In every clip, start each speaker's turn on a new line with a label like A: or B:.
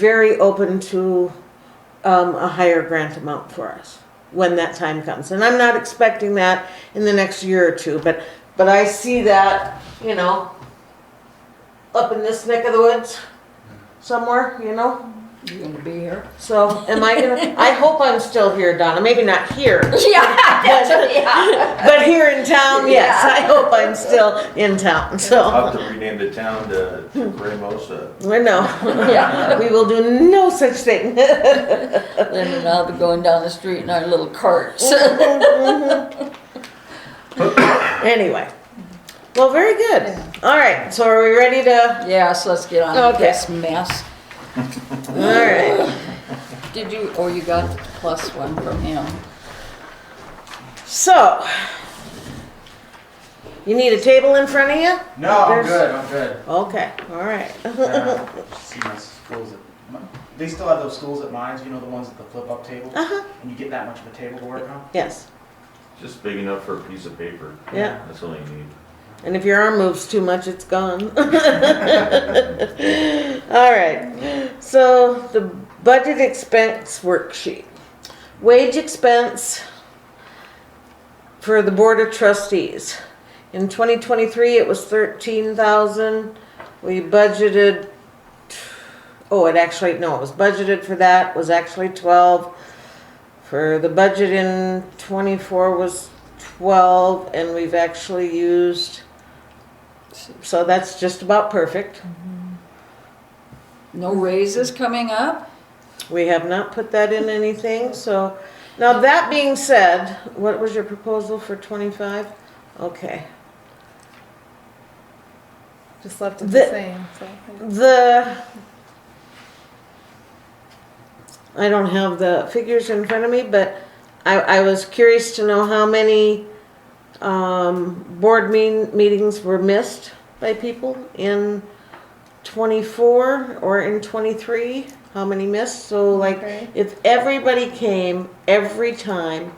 A: very open to um, a higher grant amount for us when that time comes. And I'm not expecting that in the next year or two, but, but I see that, you know, up in this neck of the woods somewhere, you know?
B: You gonna be here?
A: So am I gonna, I hope I'm still here, Donna, maybe not here,
B: Yeah, yeah.
A: but here in town, yes, I hope I'm still in town, so.
C: I'll have to rename the town to Ramosa.
A: we no,
B: Yeah,
A: we will do no such thing.
B: Lynn and I'll be going down the street in our little carts.
A: Anyway, well, very good. All right, so are we ready to?
B: Yes, let's get on with
A: Okay.
B: this mess.
A: All right.
B: Did you, or you got the plus one from him?
A: So, you need a table in front of you?
D: No, I'm
A: There's-
D: good. I'm good.
A: Okay, all right.
D: Uh, see my schools at, my, they still have those schools at mines. You know the ones with the flip up table,
A: Uh huh.
D: and you get that much of a table to work on.
A: Yes.
C: Just big enough for a piece of paper.
A: Yeah.
C: That's all you need.
A: And if your arm moves too much, it's gone. all right. So the budget expense worksheet, wage expense for the board of trustees. In 2023, it was 13,000. We budgeted. Oh, it actually no, it was budgeted for that was actually 12. For the budget in 24 was 12, and we've actually used. So that's just about perfect.
B: No raises coming up?
A: We have not put that in anything, so, now that being said, what was your proposal for twenty-five? Okay,
E: Just left it the,
A: The-
E: same. So.
A: the, I don't have the figures in front of me, but I, I was curious to know how many, um, board mean, meetings were missed by people in twenty-four or in twenty-three, how many missed, so like,
E: Okay.
A: If everybody came every time,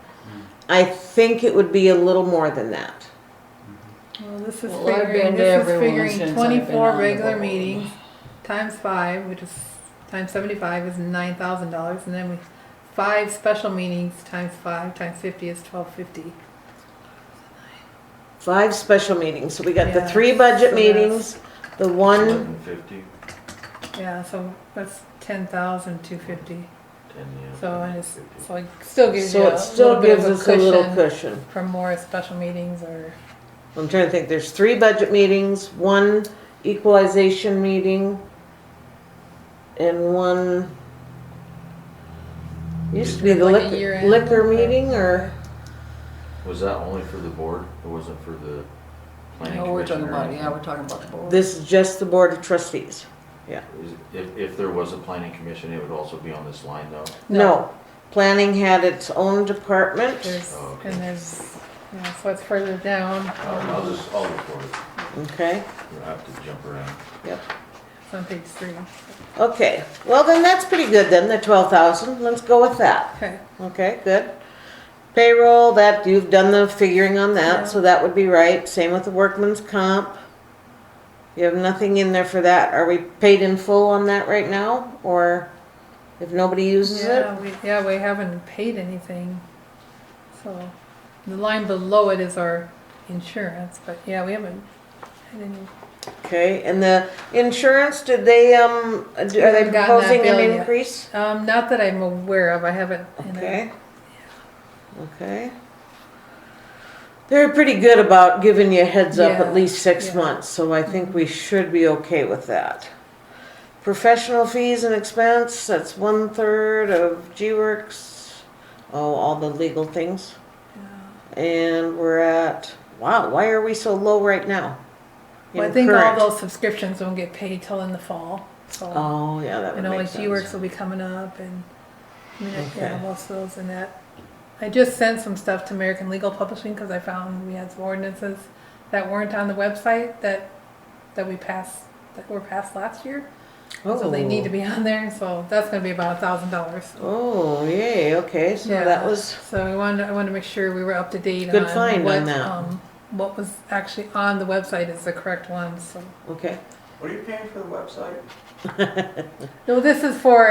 A: I think it would be a little more than that.
E: Well, this is
B: Well, I've been
E: figuring,
B: to
E: this is
B: everyone since
E: figuring
B: I've been
E: 24
B: on the
E: regular
B: board.
E: meetings times five, which is times 75 is $9,000. And then we five special meetings times five times 50 is 1250.
A: Five special meetings, so we got the
E: Yeah,
A: three budget
E: so that's-
A: meetings, the one,
C: Eleven fifty,
E: Yeah, so that's 10,250.
C: ten, yeah.
E: So and it's, so it still gives
A: so
E: you
A: it still
E: a little
A: gives
E: bit of a
A: us a
E: cushion
A: little cushion.
E: for more special meetings or
A: I'm trying to think, there's three budget meetings, one equalization meeting, and one, used to be the
E: Like a
A: liquor,
E: year-end
A: liquor
E: or-
A: meeting, or,
C: Was that only for the board? It wasn't for the planning
B: No, we're talking
C: commission or
B: about, yeah,
C: anything?
B: we're talking about the board.
A: this is just the board of trustees.
C: Is- If, if there was a planning commission, it would also be on this line though?
A: No, planning had its own department.
E: there's,
C: Oh, okay.
E: and there's, yeah, so it's further down.
C: I'll I'll just, I'll report it.
A: Okay,
C: You'll have to jump around.
E: It's on page three.
A: okay. Well, then that's pretty good then, the twelve thousand. Let's go with that.
E: Okay.
A: Okay, good. Payroll, that, you've done the figuring on that, so that would be right. Same with the workman's comp. You have nothing in there for that. Are we paid in full on that right now, or if nobody uses it?
E: Yeah, we, yeah, we haven't paid anything. So, the line below it is our insurance, but yeah, we haven't had any.
A: Okay, and the insurance, did they, um, are they
E: haven't gotten that
A: proposing
E: bill
A: an
E: yet.
A: increase?
E: Um, not that I'm aware of, I haven't. you know.
A: Okay. Okay. They're pretty good about giving you a heads up
E: Yeah,
A: at least six
E: yeah. Mm-hmm.
A: months, so I think we should be okay with that. Professional fees and expense, that's one third of G-Works, oh, all the legal things. And we're at, wow, why are we so low right now?
E: Well, I
A: In
E: think all
A: current.
E: those subscriptions won't get paid till in the fall, so.
A: Oh, yeah, that would
E: And all
A: make
E: like G-Works
A: sense.
E: will be coming up and, I mean, yeah,
A: Okay.
E: most of those and that. I just sent some stuff to American Legal Publishing because I found we had some ordinances that weren't on the website that, that we passed, that were passed last year. So they need to be on there, so that's gonna be about a thousand dollars.
A: Oh, yay, okay, so that was,
E: So we wanted, I wanted to make sure we were up to date on.
A: Good find on
E: what,
A: that.
E: um, What was actually on the website is the correct one, so.
A: okay.
D: What are you paying for the website?
E: No, this is for